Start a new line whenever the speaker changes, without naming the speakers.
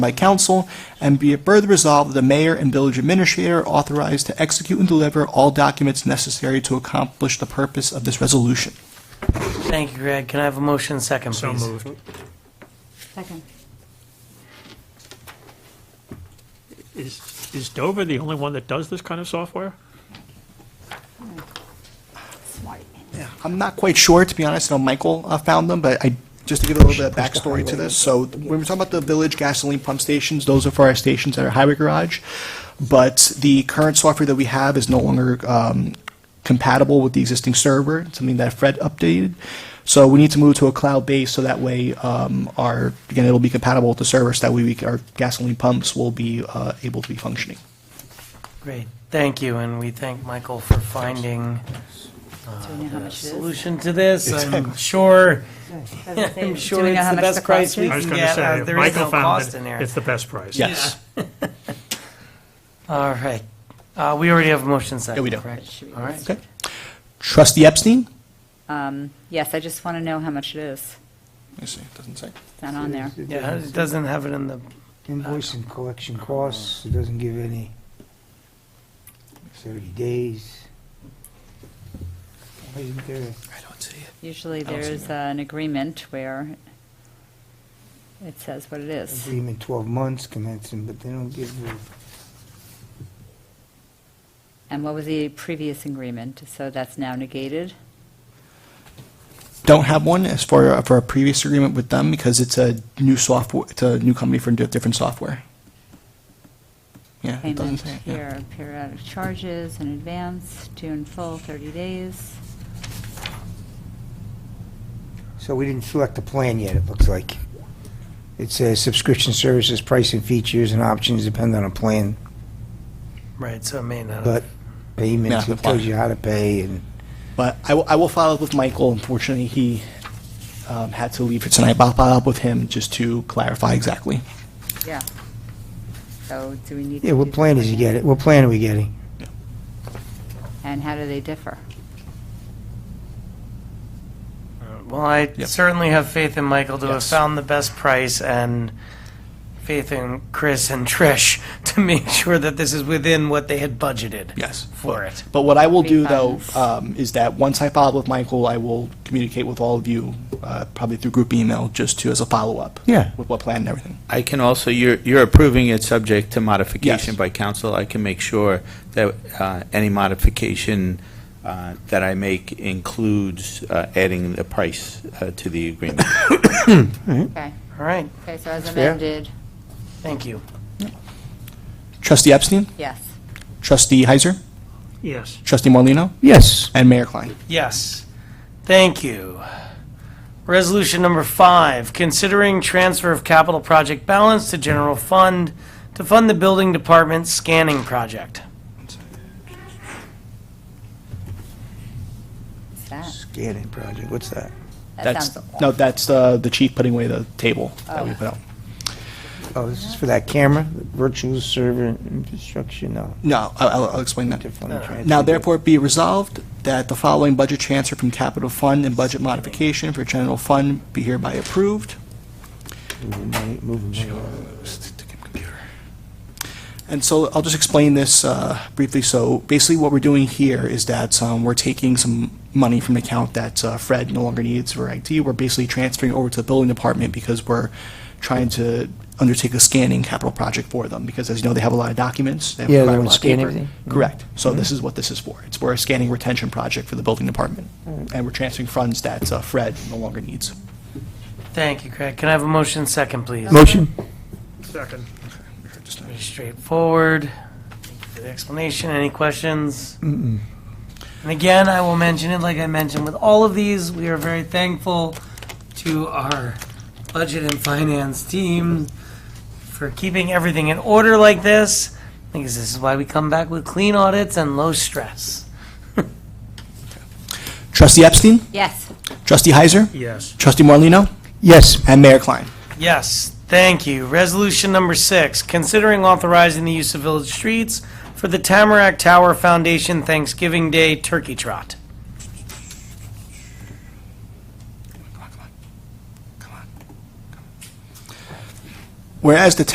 by council, and be it further resolved that the mayor and village administrator are authorized to execute and deliver all documents necessary to accomplish the purpose of this resolution.
Thank you, Greg. Can I have a motion second,
So
please?
moved.
Second.
Is, is Dover the only one that does this kind of software?
Smart.
I'm not quite sure, to be honest, I know Michael uh, found them, but I, just to give a little bit of backstory to this, so when we're talking about the village gasoline pump stations, those are for our stations at our highway garage, but the current software that we have is no longer um, compatible with the existing server, It's something that Fred updated. So we need to move to a cloud base, so that way um, our, again, it'll be compatible with the server, so that way we, c- our gasoline pumps will be uh, able to be functioning.
Great. Thank you, and we thank Michael for finding
Do we know how
a
much it is?
solution to this. I'm sure, I'm sure it's the best price we
I was
can
going to
get. Uh,
say,
There is
Michael
no
found
cost in
that
here.
it's the best price.
Yes.
All right. Uh, We already have a motion second,
we do.
correct? All right.
Okay. Trustee Epstein?
Um, Yes, I just want to know how much it is.
Let me see, it doesn't say.
It's not on there.
Yeah, it doesn't have it in the,
Invoice and collection costs, it doesn't give any 30 days. Why isn't there a-
I don't see it.
Usually
don't see
there's uh, an agreement where it says what it is.
agreement 12 months commencing, but they don't give you,
And what was the previous agreement? So that's now negated?
don't have one as far for a previous agreement with them because it's a new software, it's a new company for di- different software. Yeah, it doesn't
Payment
say. it, yeah.
here, periodic charges in advance, due in full, 30 days.
so we didn't select a plan yet, it looks like. It says subscription services, price and features and options depend on a plan,
right, so it may not.
but payments,
Yeah,
it tells you how to pay and.
But I will, I will follow up with Michael. Unfortunately, he um, had to leave for tonight. But I'll follow up with him just to clarify exactly.
Yeah. So do we need?
Yeah,
to
what
do
plan is
something
he getting,
else?
what plan are we getting?
And how do they differ?
Uh, Well, I
Yep.
certainly have faith in Michael to have
Yes.
found the best price and faith in Chris and Trish to make sure that this is within what they had budgeted.
Yes.
For it.
But what I will do though
Refunds.
um, is that once I follow up with Michael, I will communicate with all of you, uh, probably through group email, just to as a follow up.
Yeah.
With what plan and everything.
I can also, you're, you're approving it subject to modification
Yes.
by council. I can make sure that uh, any modification uh, that I make includes uh, adding the price uh, to the agreement.
Okay,
All right,
okay, so as
fair.
amended,
thank you.
Trustee Epstein,
yes.
Trustee Heiser,
Yes.
Trustee Morlino,
Yes.
and Mayor Klein.
Yes, thank you. Resolution number five, considering transfer of capital project balance to general fund to fund the building department scanning project.
What's that?
Scanning project, what's that?
That
That's-
sounds,
No, that's uh, the, the chief putting away the table that we put out.
Oh, this is for that camera, virtual server infrastructure, no.
No, I- I'll, I'll explain that.
Different transfer.
Now therefore be resolved that the following budget transfer from capital fund and budget modification for general fund be hereby approved.
Moving money- moving money around.
And so I'll just explain this uh, briefly. So basically, what we're doing here is that um, we're taking some money from an account that uh, Fred no longer needs for IT. We're basically transferring over to the building department because we're trying to undertake a scanning capital project for them. Because as you know, they have a lot of documents. They have
Yeah, they
quite a
would
lot of
scan
paper.
everything. Mm-hmm.
Correct. So this is what this is for. It's for a scanning retention project for the building department,
Mm-hmm.
and we're transferring funds that uh, Fred no longer needs.
Thank you, Craig. Can I have a motion second, please?
Motion?
Second.
Pretty straightforward. Thank you for the explanation. Any questions? And again, I will mention it, like I mentioned with all of these, we are very thankful to our budget and finance team for keeping everything in order like this, because this is why we come back with clean audits and low stress.
Trustee Epstein,
yes,
Trustee Heiser,
Yes.
Trustee Morlino,
Yes.
and Mayor Klein.
Yes, thank you. Resolution number six, considering authorizing the use of village streets for the Tamarack Tower Foundation Thanksgiving Day Turkey Trot.
Whereas the